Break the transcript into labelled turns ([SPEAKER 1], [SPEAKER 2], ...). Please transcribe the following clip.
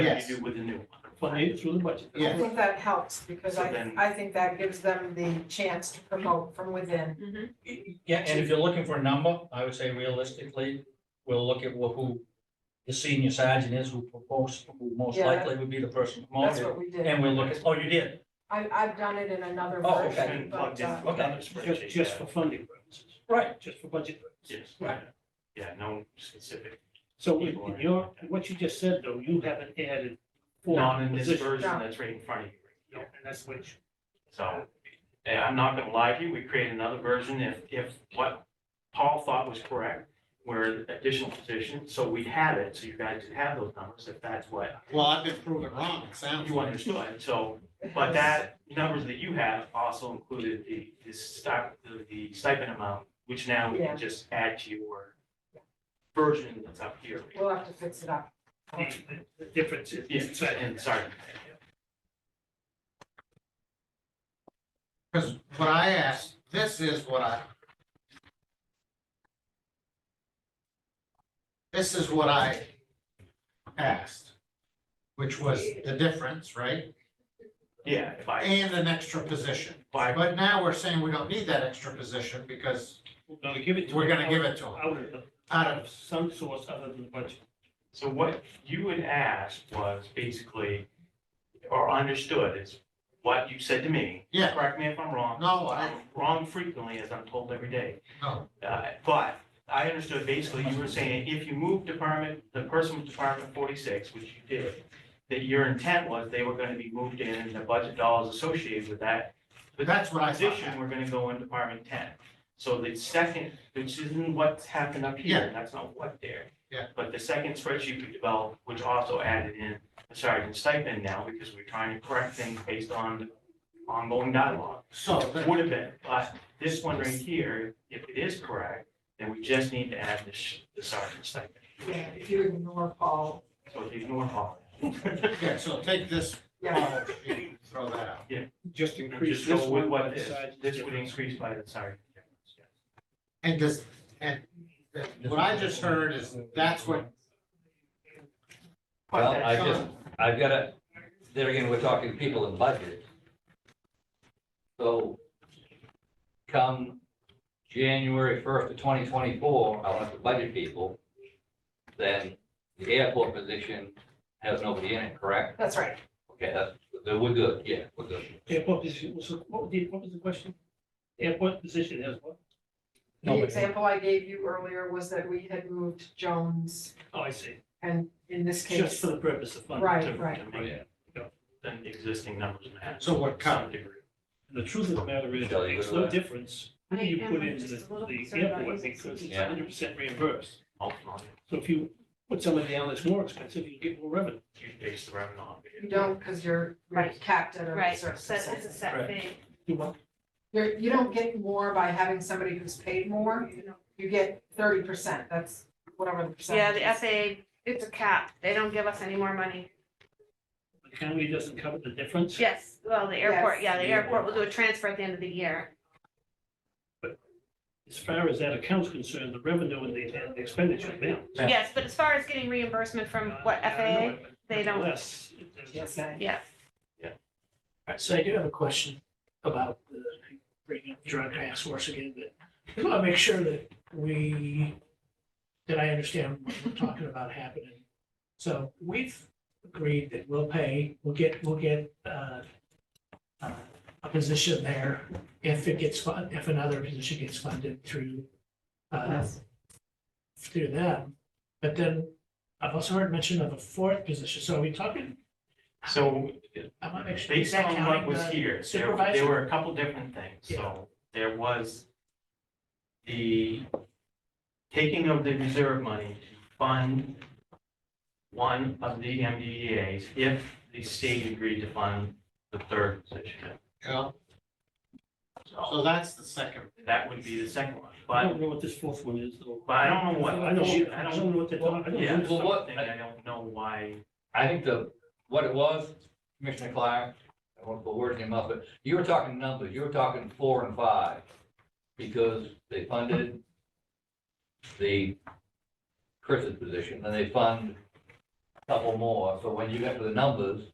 [SPEAKER 1] Yes.
[SPEAKER 2] you do with the new one.
[SPEAKER 3] funded through the budget.
[SPEAKER 1] Yeah.
[SPEAKER 4] I think that helps because
[SPEAKER 2] So
[SPEAKER 4] I,
[SPEAKER 2] then-
[SPEAKER 4] I think that gives them the chance to promote from within.
[SPEAKER 3] Yeah, and if you're looking for a number, I would say realistically, we'll look at wh- who the senior sergeant is, who proposed, who most
[SPEAKER 4] Yeah.
[SPEAKER 3] likely would be the person
[SPEAKER 4] That's
[SPEAKER 3] promoted.
[SPEAKER 4] what we did.
[SPEAKER 3] And we'll look at, oh, you did,
[SPEAKER 4] I, I've done it in another
[SPEAKER 3] Oh, okay.
[SPEAKER 4] version,
[SPEAKER 2] And
[SPEAKER 4] but,
[SPEAKER 2] plugged in
[SPEAKER 4] uh,
[SPEAKER 2] with
[SPEAKER 3] okay.
[SPEAKER 2] another
[SPEAKER 3] Just-
[SPEAKER 2] spreadsheet.
[SPEAKER 3] just
[SPEAKER 2] yeah.
[SPEAKER 3] for funding purposes. Right. Just for budget purposes.
[SPEAKER 2] Yes,
[SPEAKER 3] Right.
[SPEAKER 2] yeah, no specific,
[SPEAKER 3] So in in your, what you just said, though, you haven't added four
[SPEAKER 2] not in this
[SPEAKER 3] positions.
[SPEAKER 2] version that's right in front of you.
[SPEAKER 3] No, And that's what you-
[SPEAKER 2] So, and I'm not gonna lie to you, we create another version if, if what Paul thought was correct, where additional position, so we had it, so you guys could have those numbers, if that's what
[SPEAKER 1] Well, I've been proven wrong, it sounds
[SPEAKER 2] you
[SPEAKER 1] like.
[SPEAKER 2] understood, so, but that, numbers that you have also included the, the stip- the stipend amount, which now we
[SPEAKER 4] Yeah.
[SPEAKER 2] can just add to your version that's up here.
[SPEAKER 4] we'll have to fix it up.
[SPEAKER 3] the- the difference is.
[SPEAKER 2] Yeah, and sorry,
[SPEAKER 1] Because what I asked, this is what I. This is what I asked, which was the difference, right?
[SPEAKER 2] yeah, if I,
[SPEAKER 1] And an extra position.
[SPEAKER 2] if I
[SPEAKER 1] But now we're saying we don't need that extra position because
[SPEAKER 3] We're gonna give it to.
[SPEAKER 1] we're
[SPEAKER 3] them
[SPEAKER 1] gonna give it to them
[SPEAKER 3] Out of, the-
[SPEAKER 1] out
[SPEAKER 3] out
[SPEAKER 1] of,
[SPEAKER 3] of some source other than the budget.
[SPEAKER 2] So what you had asked was basically, or understood is what you said to me.
[SPEAKER 1] Yeah.
[SPEAKER 2] Correct me if I'm wrong.
[SPEAKER 1] no, I,
[SPEAKER 2] I'm wrong frequently, as I'm told every day.
[SPEAKER 1] no,
[SPEAKER 2] Uh, But I understood basically you were saying if you move department, the person with department forty-six, which you did, that your intent was they were gonna be moved in and the budget dollars associated with that.
[SPEAKER 1] but that's what I
[SPEAKER 2] Position,
[SPEAKER 1] thought.
[SPEAKER 2] we're gonna go in department ten. So the second, which isn't what's happened up here, that's not what there.
[SPEAKER 1] Yeah.
[SPEAKER 2] But the second spreadsheet we developed, which also added in the sergeant stipend now, because we're trying to correct things based on ongoing dialogue.
[SPEAKER 1] So, the-
[SPEAKER 2] Would have been, but this one right here, if it is correct, then we just need to add the sh- the sergeant stipend.
[SPEAKER 4] Yeah, if you ignore Paul,
[SPEAKER 2] So if you ignore all.
[SPEAKER 1] yeah, so take this,
[SPEAKER 4] yeah,
[SPEAKER 1] uh, and throw that out.
[SPEAKER 3] Just
[SPEAKER 2] Just go with what is, this would increase by the sergeant. difference, yeah.
[SPEAKER 1] And does, and what I just heard is that's what
[SPEAKER 2] But
[SPEAKER 5] Well,
[SPEAKER 2] that's
[SPEAKER 5] I
[SPEAKER 2] not-
[SPEAKER 5] just, I've got to, there again, we're talking people and budget. So come January first of twenty twenty-four, I'll have to budget people. Then the airport position has nobody in it, correct?
[SPEAKER 4] that's right.
[SPEAKER 5] Okay, that's, then we're good, yeah, we're good.
[SPEAKER 3] Airport position, so what was the, what was the question? Airport position has what?
[SPEAKER 4] The
[SPEAKER 5] Nobody.
[SPEAKER 4] example I gave you earlier was that we had moved Jones
[SPEAKER 3] Oh, I see.
[SPEAKER 4] and in this
[SPEAKER 3] Just
[SPEAKER 4] case,
[SPEAKER 3] for the purpose of funding.
[SPEAKER 4] Right,
[SPEAKER 2] to- to
[SPEAKER 4] right.
[SPEAKER 2] make
[SPEAKER 3] Yeah.
[SPEAKER 2] Than existing numbers match.
[SPEAKER 1] So what
[SPEAKER 2] to some
[SPEAKER 1] count?
[SPEAKER 2] degree.
[SPEAKER 3] And The truth of the matter is, it
[SPEAKER 5] Shelley,
[SPEAKER 3] makes
[SPEAKER 5] what do
[SPEAKER 3] no
[SPEAKER 5] I-
[SPEAKER 3] difference who
[SPEAKER 6] I
[SPEAKER 3] you
[SPEAKER 6] am,
[SPEAKER 3] put
[SPEAKER 6] I'm
[SPEAKER 3] into
[SPEAKER 6] just a
[SPEAKER 3] the,
[SPEAKER 6] little
[SPEAKER 3] the
[SPEAKER 6] concerned about
[SPEAKER 3] airport
[SPEAKER 6] using
[SPEAKER 3] because it's
[SPEAKER 5] Yeah.
[SPEAKER 3] hundred percent reimbursed.
[SPEAKER 2] Ultimately,
[SPEAKER 3] So if you put somebody down that's more expensive, you get more revenue.
[SPEAKER 2] you base the revenue on. it.
[SPEAKER 4] you don't, because you're you're
[SPEAKER 6] Right.
[SPEAKER 4] capped at a
[SPEAKER 6] Right,
[SPEAKER 4] certain
[SPEAKER 6] so it's
[SPEAKER 4] percentage.
[SPEAKER 6] a set fee.
[SPEAKER 3] You want-
[SPEAKER 4] You're, you don't get more by having somebody who's paid more, you get thirty percent, that's whatever the
[SPEAKER 6] Yeah,
[SPEAKER 4] percentage
[SPEAKER 6] the
[SPEAKER 4] is.
[SPEAKER 6] FAA, it's a cap. They don't give us any more money.
[SPEAKER 3] The county doesn't cover the difference,
[SPEAKER 6] Yes, well, the airport,
[SPEAKER 4] Yes.
[SPEAKER 6] yeah, the
[SPEAKER 2] The airport.
[SPEAKER 6] airport will do a transfer at the end of the year.
[SPEAKER 3] as far as that account's concerned, the revenue and the and the expenditure, they don't.
[SPEAKER 5] Yeah.
[SPEAKER 6] Yes, but as far as getting reimbursement from what FAA, they don't-
[SPEAKER 3] Less.
[SPEAKER 4] Yes, I-
[SPEAKER 6] yeah.
[SPEAKER 7] All right, so I do have a question about the, bringing up drug task force again, but I just want to make sure that we, that I understand what we're talking about happening. So we've agreed that we'll pay, we'll get, we'll get, uh, uh, a position there if it gets fun, if another position gets funded through, uh, through them. But then I've also heard mention of a fourth position. So are we talking,
[SPEAKER 2] So
[SPEAKER 7] I want to make sure. is
[SPEAKER 2] based
[SPEAKER 7] that
[SPEAKER 2] on what
[SPEAKER 7] counting
[SPEAKER 2] was
[SPEAKER 7] the-
[SPEAKER 2] here, there, there
[SPEAKER 7] supervisor?
[SPEAKER 2] were a couple different things. So there was the taking of the reserve money to fund one of the MDEAs if the state agreed to fund the third position.
[SPEAKER 1] Yeah,
[SPEAKER 2] So
[SPEAKER 1] so that's the second.
[SPEAKER 2] that would be the second one.
[SPEAKER 3] I
[SPEAKER 2] But,
[SPEAKER 3] don't know what this fourth one is though.
[SPEAKER 2] but I don't know what,
[SPEAKER 3] I don't,
[SPEAKER 2] I
[SPEAKER 3] I
[SPEAKER 2] don't
[SPEAKER 3] don't know what they're talking. I
[SPEAKER 2] Yeah,
[SPEAKER 3] don't know.
[SPEAKER 2] something,
[SPEAKER 5] Well, what-
[SPEAKER 2] I don't know why,
[SPEAKER 5] I think the, what it was, Commissioner Clark, I won't put words in your mouth, but you were talking numbers, you were talking four and five. Because they funded the Chris's position, and they fund couple more, so when you get to the numbers,